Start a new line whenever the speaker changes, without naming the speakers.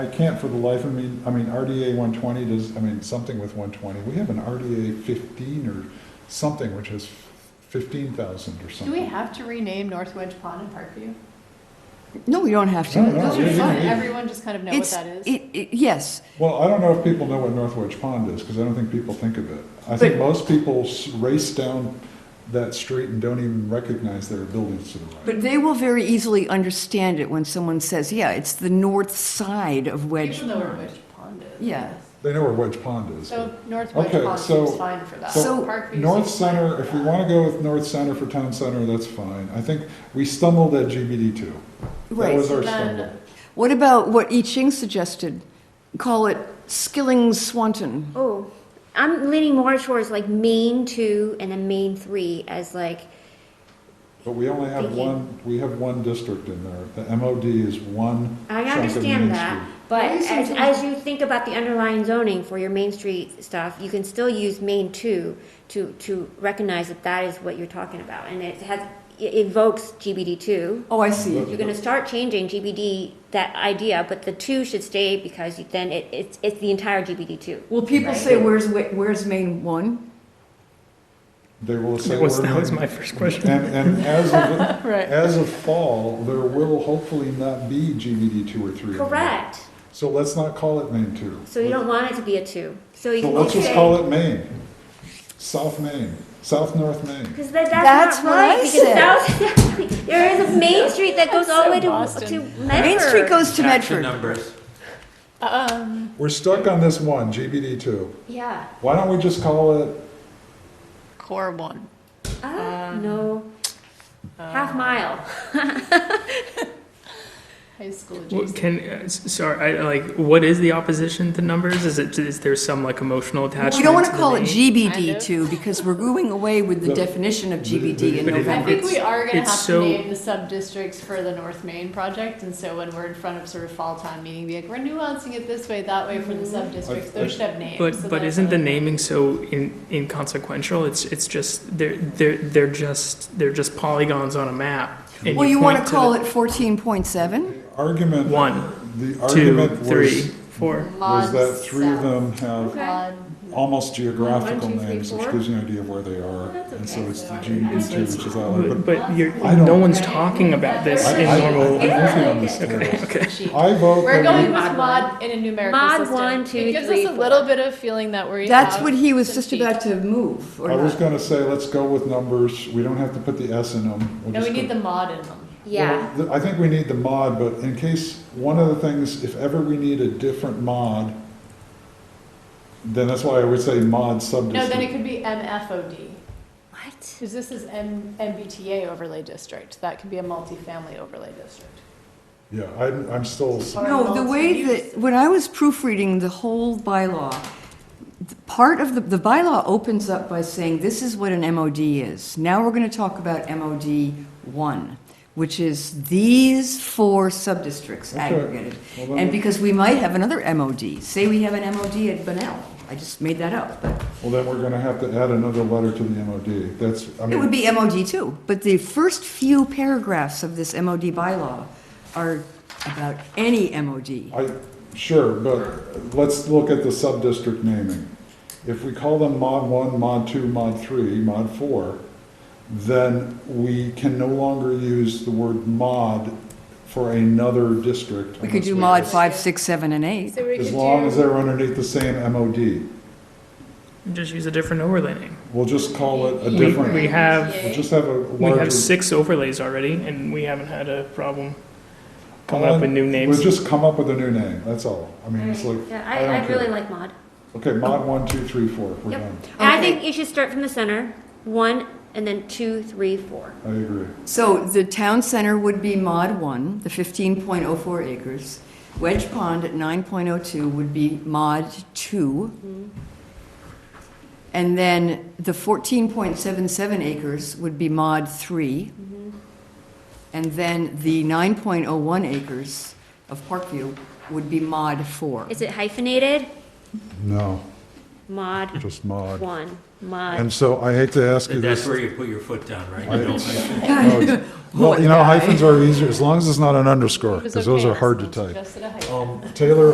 I can't for the life of me, I mean, RDA 120 does, I mean, something with 120. We have an RDA 15 or something which has 15,000 or something.
Do we have to rename North Wedge Pond and Parkview?
No, you don't have
No, no,
to.
Those
we
are
didn't
fun,
either.
everyone just kind of know what
It's,
that is.
it- it- yes,
Well, I don't know if people know what North Wedge Pond is, because I don't think people think of it. I think
But-
most people s- race down that street and don't even recognize there are buildings to the right.
but they will very easily understand it when someone says, yeah, it's the north side of Wedge.
People know where
Pond."
Wedge Pond is.
Yeah.
They know where Wedge Pond is.
So North Wedge
Okay,
Pond
so-
seems fine for that.
so
Parkview
North
seems fine
Center,
for
if we
that.
want to go with North Center for Town Center, that's fine. I think we stumbled at GBD too. That
Right.
was our
Then-
stumble.
What about what I Ching suggested? Call it Skilling Swanton.
Oh, I'm leaning more towards like main two and then main three as like,
But we only have
Thank you.
one, we have one district in there. The MOD is one
I
chunk of Main
understand that,
Street.
but
Why is
as,
something-
as you think about the underlying zoning for your Main Street stuff, you can still use main two to, to recognize that that is what you're talking about, and it has, it evokes GBD two.
Oh, I see.
You're gonna start changing GBD, that idea, but the two should stay because you, then it, it's, it's the entire GBD two.
Will people say, where's, Wa- where's Maine one?
They will say.
That was,
we're
that was
main-
my first question.
And, and as of,
Right.
as of fall, there will hopefully not be GBD two or three. anymore.
Correct,
So let's not call it Maine two.
so you don't want it to be a two, so you
So
can.
let's just
say-
call it Maine, South Maine, South North Maine.
Because that, that's,
That's
not
what I
right. because South, there is a Main Street that goes all the way to,
Boston.
to Medford.
Main Street goes to
Back
Medford.
numbers.
Um,
We're stuck on this one, GBD two.
Yeah.
Why don't we just call it,
core one.
Uh, no. Half mile.
High school
What
adjacent.
Can, uh, s- sorry, I, like, what is the opposition to numbers? Is it, is there some like emotional attachment?
We don't want to
the
call it
name?
Kind
GBD
of.
too, because we're going away with the
But-
definition of
but-
GBD in
but it-
I
November.
think we are gonna
it's
have to
so-
name the sub-districts for the North Main project, and so when we're in front of sort of fall town meeting, be like, we're nuancing it this way, that way for
Mm-hmm.
the sub-districts,
I- I-
those should have names. so
But, but
that's
isn't the
another-
naming so in, inconsequential? It's, it's just, they're, they're, they're just, they're just polygons on a map. and
Well, you want
point
to
the
call it 14.7?
the argument?
One,
The
two,
argument
three,
was,
four.
was
Mod
that three of
South.
them have
Okay.
Mod-
almost geographical
One, two, three,
names, which
four.
gives you an idea of where they are.
That's
And so
okay.
it's the GBD two, which is all.
But but you're,
I don't-
no one's talking about this
I-
in
I-
normal.
I'm with you on this,
Okay,
Carol.
okay.
Sheet.
I vote. that
We're
we-
going with
Mod one.
mod in a numerical
Mod
system.
one, two,
It gives
three,
us a little
four.
bit of feeling that we're.
That's
out
what he was
to
just
speak.
about to move, or
I was
not.
gonna say, let's go with numbers, we don't have to put the S in them. We'll
No, we
just
need
put-
the mod in them.
Yeah.
Well, th- I think we need the mod, but in case, one of the things, if ever we need a different mod, then that's why I would say mod
No, then it
subdistrict.
could be MFOD,
What?
because this is M, MBTA overlay district. That could be a multifamily overlay district.
Yeah, I'm, I'm still,
Or
No, the way
multi-use.
that, when I was proofreading the whole bylaw, th- part of the, the bylaw opens up by saying, this is what an MOD is. Now we're going to talk about MOD one, which is these four subdistricts
Okay.
aggregated.
Well, then-
And because we might have another MOD, say we have an MOD at Benel, I just made that up, but
well, then we're gonna have to add another letter to the MOD, that's, I
it would
mean,
be MOD two. But the first few paragraphs of this MOD bylaw are about any MOD.
I, sure, but let's look at the subdistrict naming. If we call them mod one, mod two, mod three, mod four, then we can no longer use the word mod for another district.
We could do
unless
mod five, six, seven, and eight.
So we
As
could
long as
do,
they're underneath the same MOD.
Just use a different overlay name.
We'll just call it a
We-
different,
We
we'll
have,
just have a
we have
larger.
six overlays already and we haven't had a problem coming
Colin,
up with new names.
We'll just come up with a new name, that's all. I mean, it's like,
yeah,
I don't
I, I really
care.
like mod.
Okay,
Oh.
mod one, two, three, four, we're
Yep.
done.
And I
Okay.
think you should start from the center, one, and then two, three, four.
I agree.
So the town center would be mod one, the fifteen point oh four acres. Wedge Pond at nine point oh two would be mod two. And then the fourteen point seven seven acres would be mod three. And then the nine point oh one acres of Parkview would be mod four.
Is it hyphenated?
No,
Mod
just mod.
one, mod.
And so I hate to ask you
That's
this.
where you put your foot down, right?
I-
You don't hyphen.
no, Well, you know, hyphens are easier, as long as it's not an underscore,
It was
because those
okay,
are hard to
someone
type.
suggested a hyphen.
Um, Taylor,